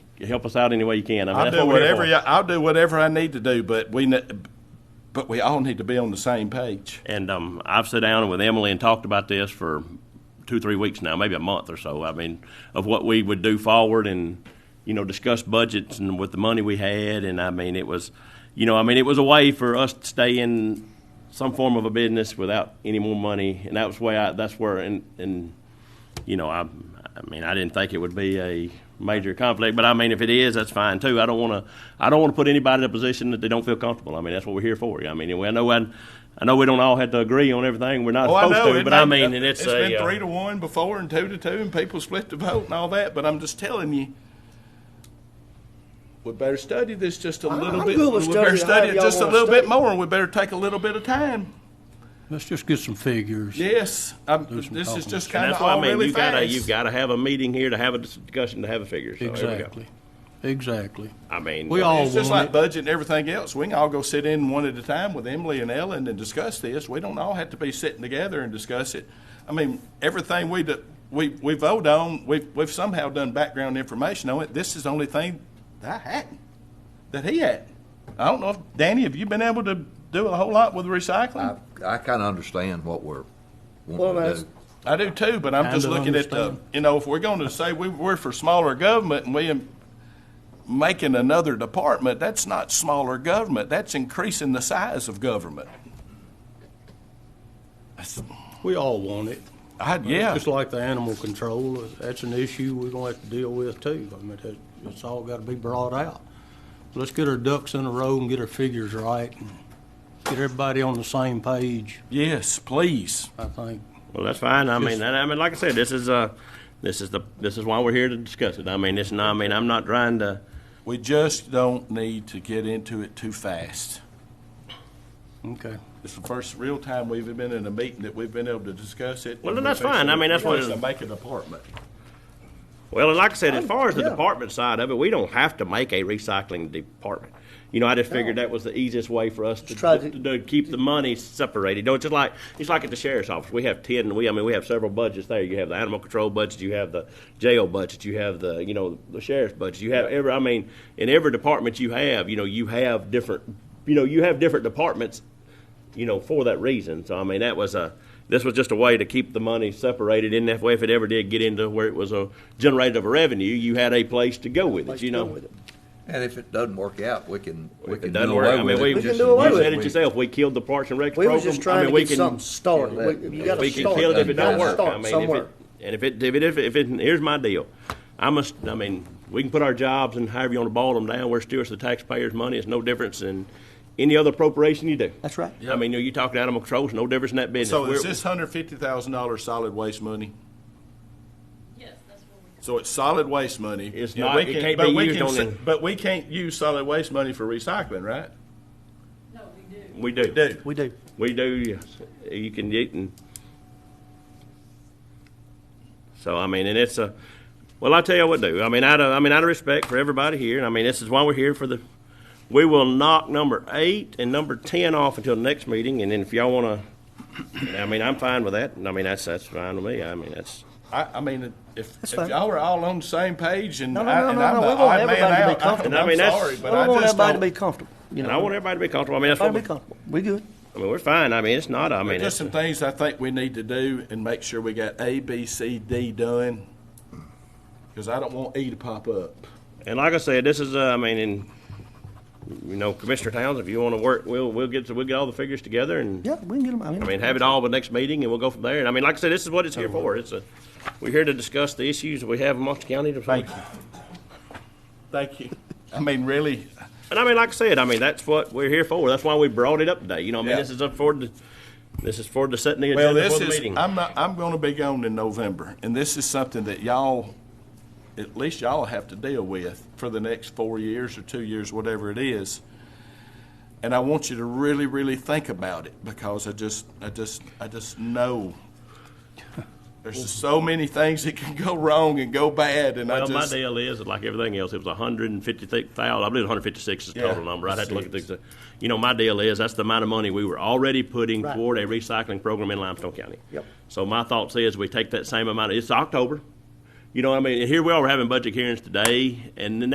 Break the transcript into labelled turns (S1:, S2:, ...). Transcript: S1: help us out any way you can. I mean,
S2: I'll
S1: that's
S2: do
S1: what we're here
S2: whatever.
S1: for.
S2: y- I'll do whatever I need to do, but we, ne- but we all need to be on the same page.
S1: And um, I've sat down with Emily and talked about this for two, three weeks now, maybe a month or so. I mean, of what we would do forward and, you know, discuss budgets and with the money we had. And I mean, it was, you know, I mean, it was a way for us to stay in some form of a business without any more money. And that was why I, that's where, and, and, you know, I, I mean, I didn't think it would be a major conflict, but I mean, if it is, that's fine too. I don't want to, I don't want to put anybody in a position that they don't feel comfortable. I mean, that's what we're here for. I mean, and we- I know, I, I know we don't all have to agree on everything. We're not
S2: Oh, I
S1: supposed
S2: know.
S1: to,
S2: it
S1: but I
S2: may-
S1: mean, and it's, a,
S2: been
S1: uh,
S2: three to one before and two to two, and people split the vote and all that. But I'm just telling you, we better study this just a little
S3: I'm
S2: bit.
S3: good with
S2: we better
S3: studying how
S2: study it
S3: y'all
S2: just a
S3: wanna
S2: little bit
S3: study.
S2: more, and we better take a little bit of time.
S4: Let's just get some figures.
S2: Yes, I'm,
S4: Do some
S2: this is
S4: talking.
S2: just
S1: and
S2: kind
S1: that's
S2: of
S1: why
S2: all
S1: I mean,
S2: really
S1: you
S2: fast.
S1: gotta, you gotta have a meeting here to have a discussion, to have a figure.
S4: Oh,
S1: So, there we go.
S4: Exactly. Exactly.
S1: I mean,
S4: We all
S2: It's just
S4: want
S2: like budget and everything else. We can all go sit in one at a time with Emily and Ellen and discuss this. We don't all have to be sitting together and discuss it. I mean, everything we do, we, we vote on, we've, we've somehow done background information on it. This is the only thing that I hadn't, that he had. I don't know if, Danny, have you been able to do a whole lot with
S5: I,
S2: recycling?
S5: I kind of understand what we're
S3: Well,
S5: wanting to
S3: that's-
S5: do.
S2: I do too, but I'm just
S4: Kinda
S2: looking at the,
S4: understand.
S2: you know, if we're going to say we, we're for smaller government and we am making another department, that's not smaller government. That's increasing the size of government.
S4: We all want it.
S2: I, yeah.
S4: Just like the animal control, that's an issue we're gonna have to deal with too. I mean, that, it's all gotta be brought out. Let's get our ducks in a row and get our figures right and get everybody on the same page,
S2: Yes, please.
S4: I think.
S1: Well, that's fine. I mean, and I mean, like I said, this is uh, this is the this is why we're here to discuss it. I mean, it's not. I mean, I'm not trying to.
S2: We just don't need to get into it too fast.
S4: Okay.
S2: It's the first real time we've been in a meeting that we've been able to discuss it.
S1: Well,
S2: and
S1: then that's
S2: we've
S1: fine. I mean, that's what
S2: actually
S1: it-
S2: Make a department.
S1: Well, and like I said, as far as the
S3: Oh, yeah.
S1: department side of it, we don't have to make a recycling department. You know, I just figured that was the easiest way for us to,
S3: try
S1: to,
S3: to-
S1: to keep the money separated. Don't just like it's like at the sheriff's office. We have ten. We I mean, we have several budgets there. You have the animal control budget. You have the jail budget. You have the you know the sheriff's budget. You have every. I mean, in every department you have, you know, you have different. You know, you have different departments you know, for that reason. So I mean, that was a this was just a way to keep the money separated. In that way, if it ever did get into where it was a generated of a revenue, you had a place to go with it. You know,
S5: And if it doesn't work out, we can, we
S1: it
S5: can
S1: doesn't
S5: do
S1: work. I
S5: away
S1: mean,
S5: with
S1: we,
S5: it.
S3: We can
S5: Just-
S3: do away
S1: you
S3: with
S1: said
S3: it.
S1: it yourself. We killed the Parks and Rec
S3: We
S1: program.
S3: was just
S1: I
S3: trying
S1: mean,
S3: to
S1: we
S3: get
S1: can,
S3: something started. We- You gotta
S1: we can
S3: start.
S1: kill it if it don't
S3: Gotta
S1: work. I
S3: start
S1: mean, if
S3: somewhere.
S1: it, and if it if it if it, if it here's my deal, I'm a, I mean, we can put our jobs and however you want to ball them down. We're stewards of the taxpayers' money. It's no difference than any other appropriation you do.
S3: That's right.
S1: I mean, you know, you talk to animal control, it's no difference in that business.
S2: So is
S1: We're-
S2: this hundred fifty thousand dollars solid waste money?
S6: Yes, that's what we.
S2: So it's solid waste money.
S1: It's
S2: Yeah,
S1: not-
S2: we
S1: it can't
S2: but
S1: be
S2: we
S1: used
S2: can
S1: on
S2: se-
S1: the-
S2: But we can't use solid waste money for recycling, right?
S6: No, we do.
S1: We do.
S2: Do.
S3: We do.
S1: We do, yes. You can eat and. So, I mean, and it's a, well, I tell you what, do. I mean, out of, I mean, out of respect for everybody here, and I mean, this is why we're here for the, we will knock number eight and number ten off until the next meeting, and then if y'all wanna, I mean, I'm fine with that, and I mean, that's, that's fine with me, I mean, that's.
S2: I, I mean, if, if
S3: fine.
S2: y'all are all on the same page and
S3: No, no,
S2: I,
S3: no,
S2: and
S3: no,
S2: I'm
S3: no,
S2: the
S3: we want
S2: odd man
S3: everybody to be
S2: out,
S3: comfortable.
S2: I'm
S1: I mean, that's-
S2: sorry, but
S3: Well, I
S2: I
S3: want
S2: just
S3: everybody to
S2: don't-
S3: be comfortable, you know.
S1: And I want everybody to be comfortable, I mean, that's what,
S3: Everybody
S1: we-
S3: be comfortable. We good.
S1: I mean, we're fine, I mean, it's not, I mean,
S2: There's
S1: it's,
S2: some things I think we need to do and make sure we got A, B, C, D done, because I don't want E to pop up.
S1: and like I said, this is, uh, I mean, and, you know, Commissioner Towns, if you wanna work, we'll, we'll get, we'll get all the figures together and.
S3: Yeah, we can get them. I
S1: I mean,
S3: mean,
S1: have it all the next meeting, and we'll go from there. And I mean, like I said, this is what it's here for. It's a, we're here to discuss the issues we have amongst the county.
S2: Thank you. Thank you. I mean, really,
S1: And I mean, like I said, I mean, that's what we're here for. That's why we brought it up today. You know, I mean,
S2: Yeah.
S1: this is up for, the- this is for the setting the
S2: well,
S1: agenda
S2: this
S1: for the
S2: is,
S1: meeting.
S2: I'm not, I'm gonna be gone in November, and this is something that y'all, at least y'all have to deal with for the next four years or two years, whatever it is. And I want you to really, really think about it, because I just, I just, I just know there's just so many things that can go wrong and go bad, and I
S1: Well, my
S2: just,
S1: deal is, like everything else, it was a hundred and fifty thousand, I believe hundred fifty-six is the
S2: Yeah.
S1: total number, I'd have to look at the, you know, my deal is, that's the amount of money we were already putting
S3: Right.
S1: toward a recycling program in Limestone County.
S3: Yep.
S1: So my thoughts is, we take that same amount, it's October, you know, what I mean, here we are, we're having budget hearings today, and the